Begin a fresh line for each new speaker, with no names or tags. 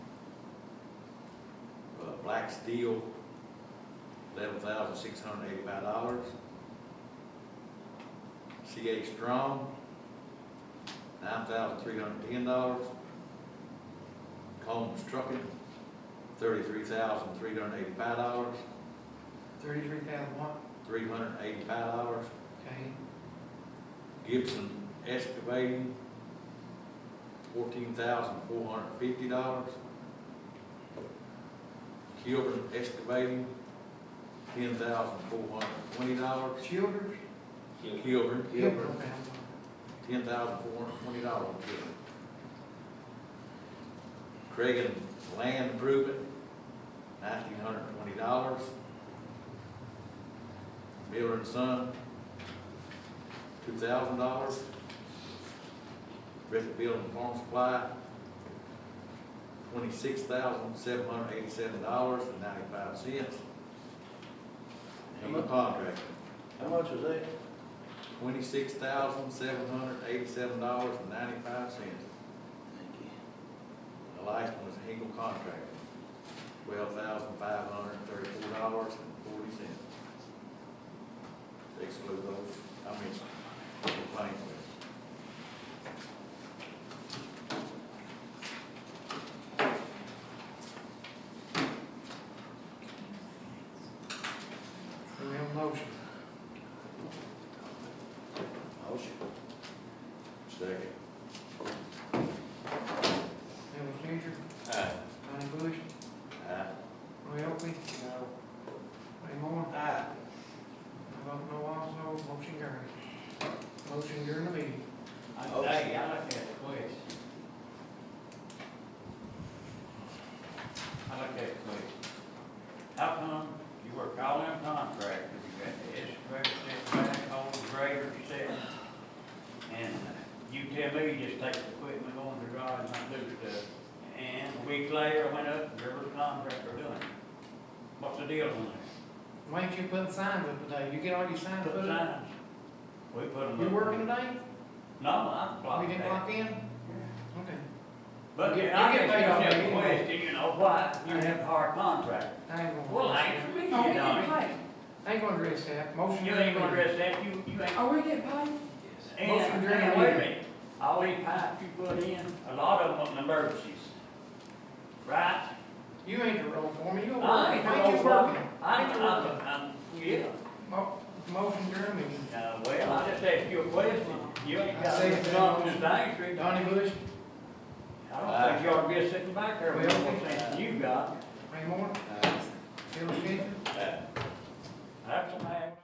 tax deal, uh, eleven thousand six hundred eighty-five dollars. CA Strong, nine thousand three hundred ten dollars. Combs Trucking, thirty-three thousand three hundred eighty-five dollars,
Thirty-three thousand one,
three hundred eighty-five dollars.
okay,
Gibson Excavating, fourteen thousand four hundred fifty dollars. Kilburn Excavating, ten thousand four hundred twenty dollars.
Childers?
Kilburn,
Childers,
ten thousand four hundred twenty dollars. Craig and Land Improvement, nineteen hundred twenty dollars. Miller and Son, two thousand dollars. Griffin Building and Farm Supply, twenty-six thousand seven hundred eighty-seven dollars and ninety-five cents. And the contract,
How much is that?
twenty-six thousand seven hundred eighty-seven dollars and ninety-five cents. The last one was Eagle Contract, twelve thousand five hundred thirty-four dollars and forty cents. Exclude those, I mean, complaints.
do we have a motion?
Motion.
Second.
Bill Changer,
Aye.
Donnie Bush,
Aye.
Roy Elphie? No. Ray Moore? Aye. I vote no also, motion carries. Motion during the meeting.
I say, I like that question. I like that question. How come you work all them contractors, you got the excavator set back, all the grader set, and you tell me you just take the equipment on the drive and not do stuff, and a week later, I went up, and there was a contractor doing it. What's the deal on that?
Why ain't you putting signs up today? You get all your signs
Put
put up?
signs. We put them up.
You working today?
No, I
We
blocked
didn't
that.
lock in? Okay,
But
You get-
I
you get
get
paid off
paid
anyway.
off question, you know, why you have a hard contract?
I ain't gonna.
Well, answer me, you
Are we
know.
getting paid?
I ain't gonna address that, motion.
You
during
ain't
the
gonna
meeting.
address that, you, you ain't.
Are we getting paid?
Motion
And,
during the
and wait a
meeting.
minute, all these pipes you put in, a lot of them are emergencies, right?
You ain't the role for me, you a worker,
I
why
ain't
ain't you
gonna work,
working?
I,
Why ain't you working?
I'm, I'm, yeah,
Mo- Motion during the meeting.
uh, well, I just asked you a question, you ain't
I
got
say
to
that.
come to the answer.
Donnie Bush,
I don't think you ought to be sitting back there with
Well,
what you got.
Ray Moore,